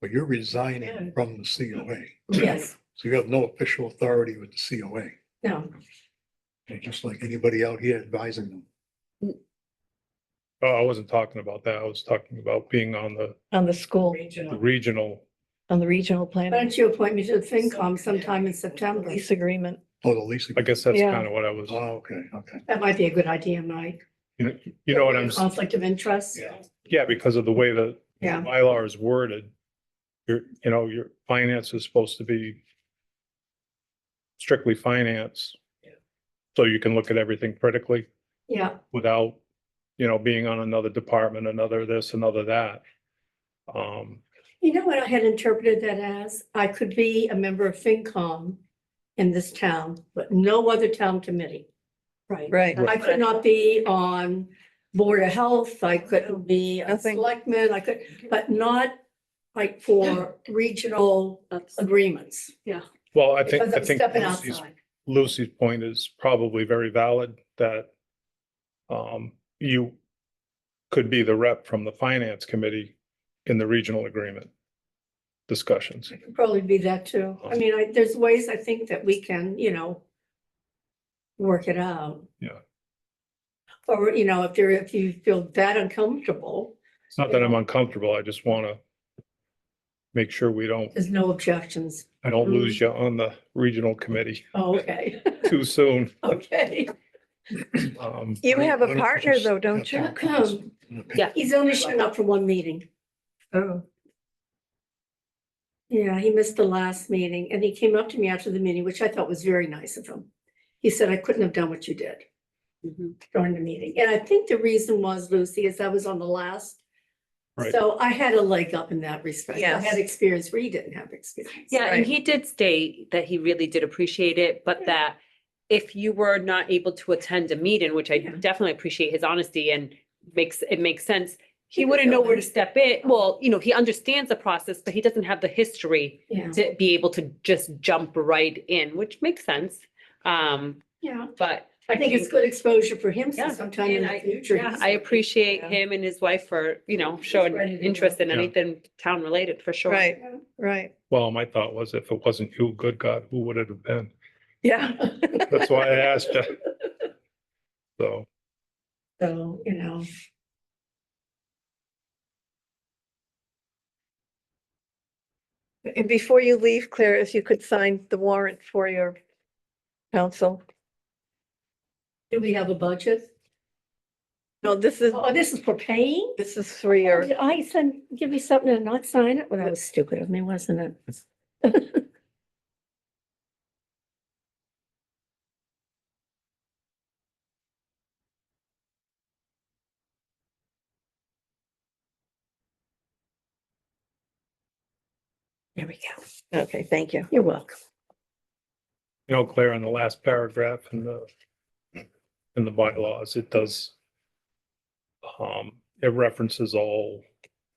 but you're resigning from the COA. Yes, So you have no official authority with the COA, no, You're just like anybody out here advising them. Oh, I wasn't talking about that. I was talking about being on the on the school, the Regional. regional. on the regional why planning don't you appoint me to the FinCom sometime in September? lease agreement. Oh, the leasing. I guess that's Yeah. kind of what I was, Oh, okay, okay. That might be a good idea, Mike. you know, you know what I'm, s- Conflict of interest. Yeah. yeah, because of the way that the Um, Yeah. bylaw is worded. Your, you know, your finance is supposed to be strictly finance. Yeah. So you can look at everything critically Yeah, without, you know, being on another department, another this, another that. Um, you know what I had interpreted that as? I could be a member of FinCom in this town, but no other town committee. Right. Right. I could not be on Board of Health, I couldn't be a Nothing. selectman, I could, but not like for regional agreements. Yeah. well, I think, Because I I'm think stepping Lucy's outside. Lucy's point is probably very valid that um, you could be the rep from the finance committee in the regional agreement discussions. I could Probably be that too. I mean, I, there's ways I think that we can, you know, work it out. Yeah. Or, you know, if there, if you feel that uncomfortable, It's not that I'm uncomfortable. I just want to make sure we don't, there's no objections. I don't lose you on the regional committee Oh, Okay, too soon. okay. Um, You Why- have why a don't you partner just though, don't you? have that person in the picture? He's only shown up for one meeting. Oh, Yeah, he missed the last meeting and he came up to me after the meeting, which I thought was very nice of him. He said, I couldn't have done what you did Mm-hmm. during the meeting. And I think the reason was, Lucy, is I was on the last. Right. So I had a leg up in that respect. I Yes. had experience where he didn't have experience. Yeah, Right. and he did state that he really did appreciate it, but that if you were not able to attend a meeting, which I Yeah. definitely appreciate his honesty and makes, it makes sense. He He could wouldn't go know where to in. step in. Well, you know, he understands the process, but he doesn't have the history Yeah, to be able to just jump right in, which makes sense. Um, yeah. but. I think it's good exposure for him so Yeah, sometime in and the I- future. Yeah, he's I appreciate Yeah. him and his wife for, you know, He's showing ready to go. interest in Yeah. anything town related for sure. right, right. Well, my thought was if it wasn't you, good God, who would it have been? Yeah. That's why I asked you. So, So, you know. And before you leave, Claire, if you could sign the warrant for your council. Do we have a budget? No, this is, Oh, this is for paying? this is for your, Did I send, give you something and not sign it? Well, that was stupid of me, wasn't it? There we go. okay, thank you. You're welcome. you know, Claire, in the last paragraph in the in the bylaws, it does um, it references all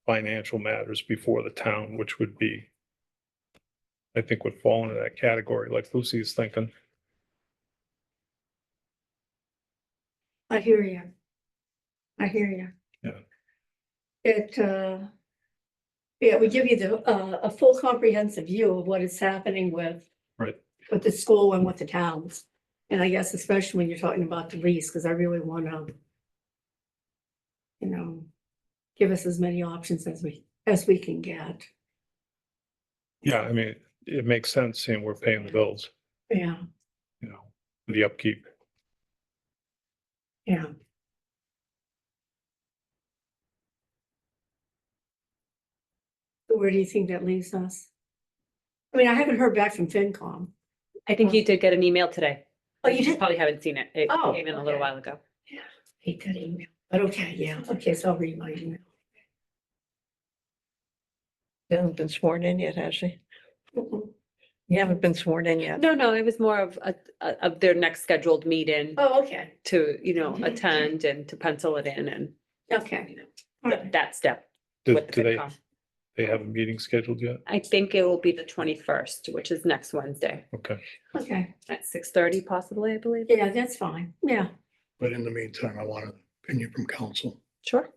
financial matters before the town, which would be I think would fall into that category, like Lucy's thinking. I hear you. I hear you. Yeah. It, uh, yeah, we give you the, uh, a full comprehensive view of what is happening with. Right. With the school and with the towns. And I guess especially when you're talking about the lease, because I really want to, you know, give us as many options as we, as we can get. Yeah, I mean, it makes sense seeing we're paying the bills, Yeah, you know, the upkeep. yeah. Where do you think that leaves us? I mean, I haven't heard back from FinCom. I think you did get an email today. Oh, you did? Probably haven't seen it. It Oh, came in a okay. little while ago. Hate that email, but okay, yeah, okay, so I'll read my email. You haven't been sworn in yet, has she? Mm-mm. You haven't been sworn in yet. No, no, it was more of a, a- of their next scheduled meeting Oh, okay, to, you know, Mhm. attend and to pencil it in and okay. All th- right. that step. Did with do the they, FinCom. they have a meeting scheduled yet? I think it will be the twenty-first, which is next Wednesday Okay, Okay, at six thirty possibly, I believe. yeah, that's fine, yeah, But in the meantime, I want an opinion from council. Sure.